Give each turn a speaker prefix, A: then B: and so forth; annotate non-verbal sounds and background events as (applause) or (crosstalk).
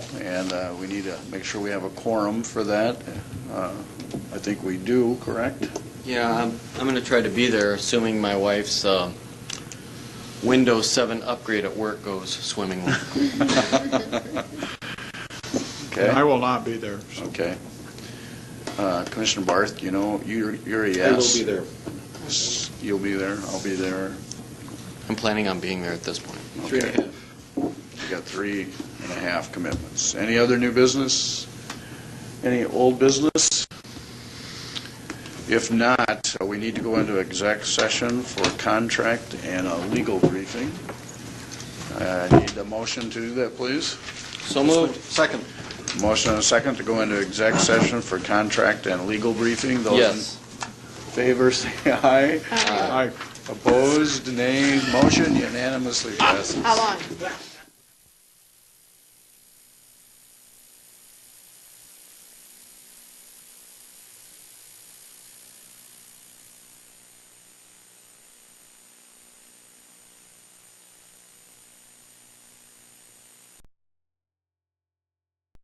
A: and uh, we need to make sure we have a quorum for that. Uh, I think we do, correct?
B: Yeah, I'm, I'm going to try to be there, assuming my wife's um, Windows 7 upgrade at work goes swimmingly.
C: I
A: Okay,
C: will not be there. so-
A: okay. Uh, Commissioner Barth, you know, you're you're a yes.
D: I will be there.
A: there. You'll be there, I'll be there.
B: I'm planning on being there at this point.
D: Three and a
A: Okay.
D: half.
A: We got three and a half commitments. Any other new business? Any old business? If not, uh, we need to go into exec session for contract and a legal briefing. Uh, I need a motion to do that, please.
B: So moved.
D: Second.
A: Motion and a second to go into exec session for contract and legal briefing.
B: Yes.
A: Those in favor, (laughs) say aye.
C: I
A: Opposed, nay. Motion unanimously passes.
E: How long?